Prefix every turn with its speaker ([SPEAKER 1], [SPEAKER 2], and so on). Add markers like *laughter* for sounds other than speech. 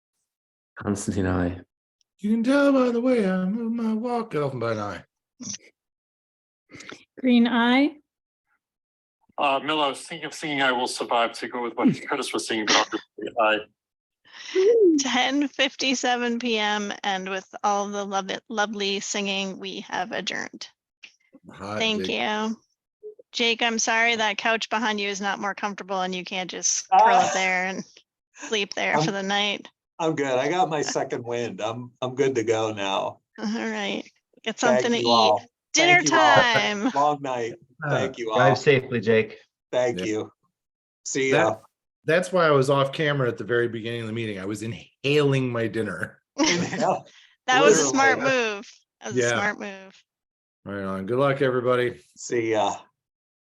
[SPEAKER 1] Constantine, I.
[SPEAKER 2] You can tell by the way I move my walk, Elfenbein Eye.
[SPEAKER 3] Green eye.
[SPEAKER 4] Uh, Miller, I was thinking of singing I Will Survive to go with what Curtis was singing. about. I,
[SPEAKER 5] 10:57 PM and with all the lov- lovely singing, we have adjourned.
[SPEAKER 2] Hot
[SPEAKER 5] Thank
[SPEAKER 2] diggity.
[SPEAKER 5] you. Jake, I'm sorry that couch behind you is not more comfortable and you can't just curl
[SPEAKER 6] Ah.
[SPEAKER 5] up there and sleep there for
[SPEAKER 6] Um,
[SPEAKER 5] the night.
[SPEAKER 6] I'm good. I got my second wind. I'm, I'm good to go now.
[SPEAKER 5] All right, get
[SPEAKER 6] Thank
[SPEAKER 5] something to
[SPEAKER 6] you
[SPEAKER 5] eat.
[SPEAKER 6] all.
[SPEAKER 5] Dinner
[SPEAKER 6] Thank you all.
[SPEAKER 5] time.
[SPEAKER 6] Long night. Thank you all.
[SPEAKER 7] Uh, Drive safely, Jake.
[SPEAKER 6] Thank
[SPEAKER 2] Yeah.
[SPEAKER 6] you. See
[SPEAKER 2] That-
[SPEAKER 6] ya.
[SPEAKER 2] That's why I was off camera at the very beginning of the meeting. I was inhaling my dinner.
[SPEAKER 6] Inhale.
[SPEAKER 5] *laughs* That was a
[SPEAKER 6] literally,
[SPEAKER 5] smart
[SPEAKER 6] uh,
[SPEAKER 5] move. That was a
[SPEAKER 2] yeah.
[SPEAKER 5] smart move.
[SPEAKER 2] Right on. Good luck, everybody.
[SPEAKER 6] *laughs* See ya.